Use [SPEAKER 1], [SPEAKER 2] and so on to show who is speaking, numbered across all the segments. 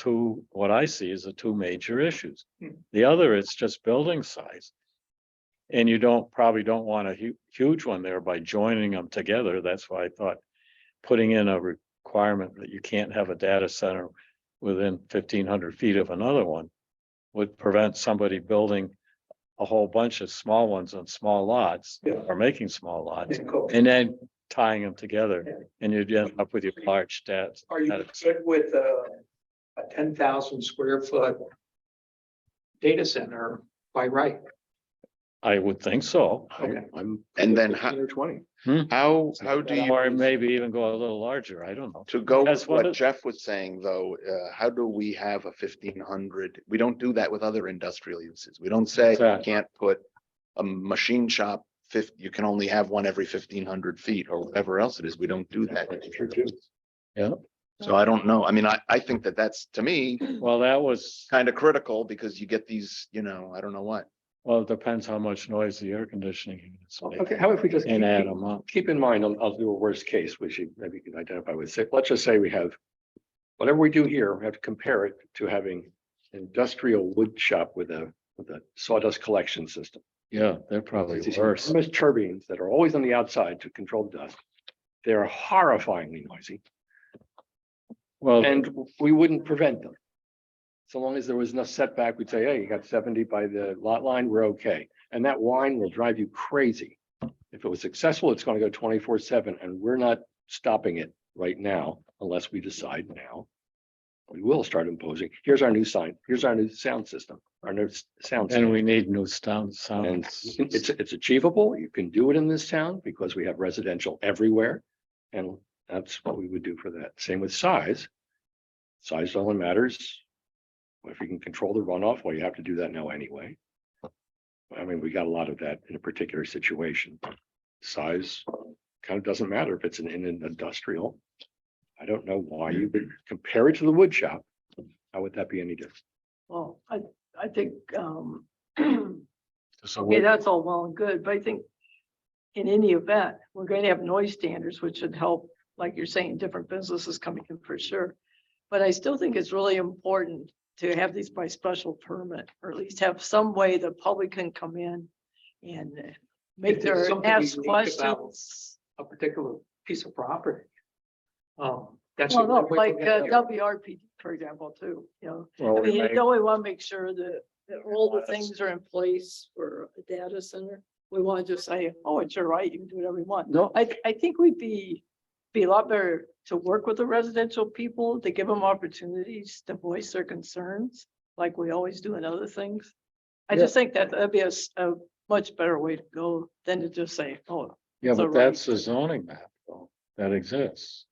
[SPEAKER 1] two, what I see is the two major issues.
[SPEAKER 2] Hmm.
[SPEAKER 1] The other, it's just building size. And you don't, probably don't want a hu- huge one there by joining them together. That's why I thought putting in a requirement that you can't have a data center within fifteen hundred feet of another one would prevent somebody building a whole bunch of small ones on small lots
[SPEAKER 2] Yeah.
[SPEAKER 1] or making small lots
[SPEAKER 2] And co-
[SPEAKER 1] and then tying them
[SPEAKER 2] Yeah.
[SPEAKER 1] together and you'd end up with your large stats.
[SPEAKER 2] Are you good with
[SPEAKER 3] uh,
[SPEAKER 2] a, a ten thousand square foot data center by right?
[SPEAKER 1] I would think so.
[SPEAKER 2] Okay.
[SPEAKER 4] I'm, and then how,
[SPEAKER 2] 15 Or twenty.
[SPEAKER 4] how, how do
[SPEAKER 1] Or
[SPEAKER 4] you,
[SPEAKER 1] maybe even go a little larger. I don't know.
[SPEAKER 4] to go
[SPEAKER 1] That's
[SPEAKER 4] with
[SPEAKER 1] one
[SPEAKER 4] what
[SPEAKER 1] of-
[SPEAKER 4] Jeff was saying, though, uh, how do we have a fifteen hundred? We don't do that with other industrial uses. We don't say you
[SPEAKER 1] Exactly.
[SPEAKER 4] can't put a machine shop fif, you can only have one every fifteen hundred feet or whatever else it is. We don't do that.
[SPEAKER 1] Yeah.
[SPEAKER 4] So I don't know. I mean, I, I think that that's, to me,
[SPEAKER 1] Well, that was,
[SPEAKER 4] kind of critical because you get these, you know, I don't know what.
[SPEAKER 1] well, it depends how much noise the air conditioning units make
[SPEAKER 3] Okay, how if we just keep,
[SPEAKER 1] and add
[SPEAKER 3] keep-
[SPEAKER 1] them up.
[SPEAKER 3] keep in mind, I'll, I'll do a worst case, which you maybe can identify with six. Let's just say we have. Whatever we do here, we have to compare it to having industrial wood shop with a, with a sawdust collection system.
[SPEAKER 1] Yeah, they're probably
[SPEAKER 3] These
[SPEAKER 1] worse.
[SPEAKER 3] enormous turbines that are always on the outside to control dust. They're horrifyingly noisy
[SPEAKER 1] Well,
[SPEAKER 3] and we wouldn't prevent them. So long as there was no setback, we'd say, hey, you got seventy by the lot line, we're okay. And that wine will drive you crazy. If it was successful, it's gonna go twenty-four seven and we're not stopping it right now unless we decide now. We will start imposing. Here's our new sign. Here's our new sound system, our new s- sound.
[SPEAKER 1] and
[SPEAKER 3] system.
[SPEAKER 1] we need new sound, sound.
[SPEAKER 3] And it's, it's achievable. You can do it in this town because we have residential everywhere. And that's what we would do for that. Same with size. Size only matters. If you can control the runoff, well, you have to do that now anyway. I mean, we got a lot of that in a particular situation. Size kind of doesn't matter if it's in, in an industrial. I don't know why you would compare it to the wood shop. How would that be any different?
[SPEAKER 5] Well, I, I think, um, okay,
[SPEAKER 1] So we-
[SPEAKER 5] that's all well and good, but I think in any event, we're going to have noise standards, which should help, like you're saying, different businesses coming in for sure. But I still think it's really important to have these by special permit, or at least have some way the public can come in and make
[SPEAKER 2] If there's
[SPEAKER 5] their,
[SPEAKER 2] something
[SPEAKER 5] ask
[SPEAKER 2] unique about-
[SPEAKER 5] questions.
[SPEAKER 2] A particular piece of property. Um, that's. the
[SPEAKER 5] Well, no,
[SPEAKER 2] only way
[SPEAKER 5] like
[SPEAKER 2] we're gonna
[SPEAKER 5] uh,
[SPEAKER 2] get there.
[SPEAKER 5] WRP, for example, too, you know,
[SPEAKER 1] well,
[SPEAKER 5] I
[SPEAKER 1] we
[SPEAKER 5] mean,
[SPEAKER 1] may-
[SPEAKER 5] you know, we want to make sure that, that all the
[SPEAKER 1] Yes.
[SPEAKER 5] things are in place for a data center. We want to just say, oh, it's your right, you can do whatever you want.
[SPEAKER 1] No,
[SPEAKER 5] I, I think we'd be, be a lot better to work with the residential people, to give them opportunities to voice their concerns, like we always do in other things. I
[SPEAKER 1] Yeah.
[SPEAKER 5] just think that that'd be a, s- a much better way to go than to just say, oh,
[SPEAKER 1] yeah,
[SPEAKER 5] so
[SPEAKER 1] but
[SPEAKER 5] right.
[SPEAKER 1] that's the zoning map though, that exists.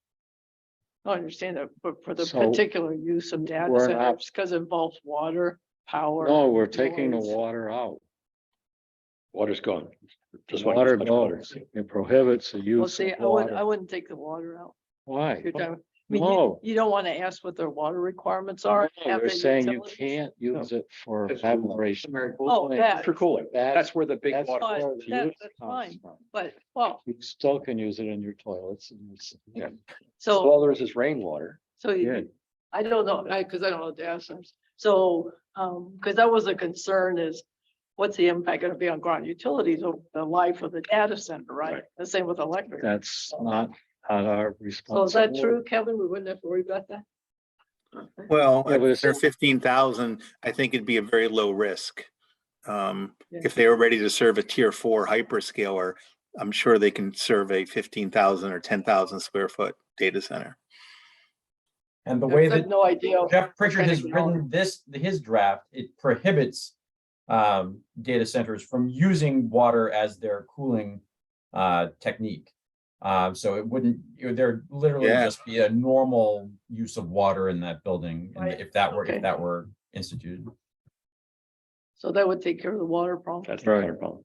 [SPEAKER 5] I understand that, but for the
[SPEAKER 1] So,
[SPEAKER 5] particular use of data
[SPEAKER 1] we're not-
[SPEAKER 5] centers, because it involves water, power.
[SPEAKER 1] No, we're taking the
[SPEAKER 5] noise.
[SPEAKER 1] water out.
[SPEAKER 3] Water's gone. Just want-
[SPEAKER 1] Water
[SPEAKER 3] just water.
[SPEAKER 1] goes. It prohibits the
[SPEAKER 5] Well,
[SPEAKER 1] use
[SPEAKER 5] see,
[SPEAKER 1] of
[SPEAKER 5] I wouldn't, I
[SPEAKER 1] water.
[SPEAKER 5] wouldn't take the water out.
[SPEAKER 1] Why?
[SPEAKER 5] You're talking- I mean, you,
[SPEAKER 1] No.
[SPEAKER 5] you don't want to ask what their water requirements are.
[SPEAKER 1] No,
[SPEAKER 5] and have
[SPEAKER 1] You're
[SPEAKER 5] the
[SPEAKER 1] saying you
[SPEAKER 5] utilities.
[SPEAKER 1] can't use it for
[SPEAKER 3] That's cool.
[SPEAKER 1] aberration.
[SPEAKER 2] Mary Bull-
[SPEAKER 5] Oh, that,
[SPEAKER 3] For cooling.
[SPEAKER 1] That's
[SPEAKER 3] That's where the big
[SPEAKER 1] That's
[SPEAKER 3] water.
[SPEAKER 5] fine.
[SPEAKER 1] where the
[SPEAKER 5] That-
[SPEAKER 1] use
[SPEAKER 5] that's
[SPEAKER 1] comes
[SPEAKER 5] fine.
[SPEAKER 1] from.
[SPEAKER 5] but, well,
[SPEAKER 1] You still can use it in your toilets. and it's-
[SPEAKER 3] Yeah. So
[SPEAKER 5] so,
[SPEAKER 3] all there is is rainwater.
[SPEAKER 5] so
[SPEAKER 1] Yeah.
[SPEAKER 5] you- I don't know, I, because I don't know the answers. So, um, because that was a concern is what's the impact going to be on ground utilities over the life of the data center, right?
[SPEAKER 3] Right.
[SPEAKER 5] The same with electric.
[SPEAKER 1] That's not on our
[SPEAKER 5] So is that
[SPEAKER 1] responsibility.
[SPEAKER 5] true, Kevin? We wouldn't have to worry about that?
[SPEAKER 6] Well,
[SPEAKER 1] Yeah, but
[SPEAKER 6] if
[SPEAKER 1] it's
[SPEAKER 6] they're
[SPEAKER 1] still-
[SPEAKER 6] fifteen thousand, I think it'd be a very low risk. Um,
[SPEAKER 5] Yeah.
[SPEAKER 6] if they were ready to serve a tier four hyperscaler, I'm sure they can serve a fifteen thousand or ten thousand square foot data center.
[SPEAKER 7] And the
[SPEAKER 5] I
[SPEAKER 7] way
[SPEAKER 5] have
[SPEAKER 7] that
[SPEAKER 5] No idea.
[SPEAKER 7] Jeff Pritchard has
[SPEAKER 5] Kind of-
[SPEAKER 7] written this, his draft, it prohibits um, data centers from using water as their cooling uh, technique. Um, so it wouldn't, you know, there'd literally
[SPEAKER 6] Yeah.
[SPEAKER 7] just be a normal use of water in that building and
[SPEAKER 5] Right,
[SPEAKER 7] if that were,
[SPEAKER 5] okay.
[SPEAKER 7] if that were instituted.
[SPEAKER 5] So that would take care of the water problem
[SPEAKER 3] That's the water problem.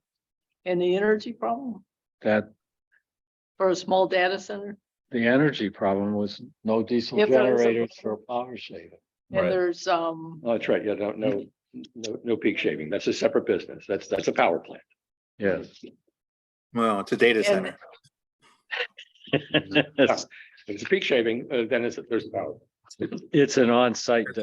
[SPEAKER 5] and the energy problem
[SPEAKER 1] That
[SPEAKER 5] for a small data center.
[SPEAKER 1] the energy problem was no diesel
[SPEAKER 5] If there is a
[SPEAKER 1] generators for power shaving.
[SPEAKER 5] And
[SPEAKER 7] Right.
[SPEAKER 5] there's, um,
[SPEAKER 3] Oh, That's right. Yeah, no, no, no, no peak shaving. That's a separate business. That's, that's a power plant.
[SPEAKER 1] Yes.
[SPEAKER 6] Well, it's a data
[SPEAKER 5] And-
[SPEAKER 6] center.
[SPEAKER 3] If it's a peak shaving, uh, then it's, there's a power.
[SPEAKER 1] It's an on-site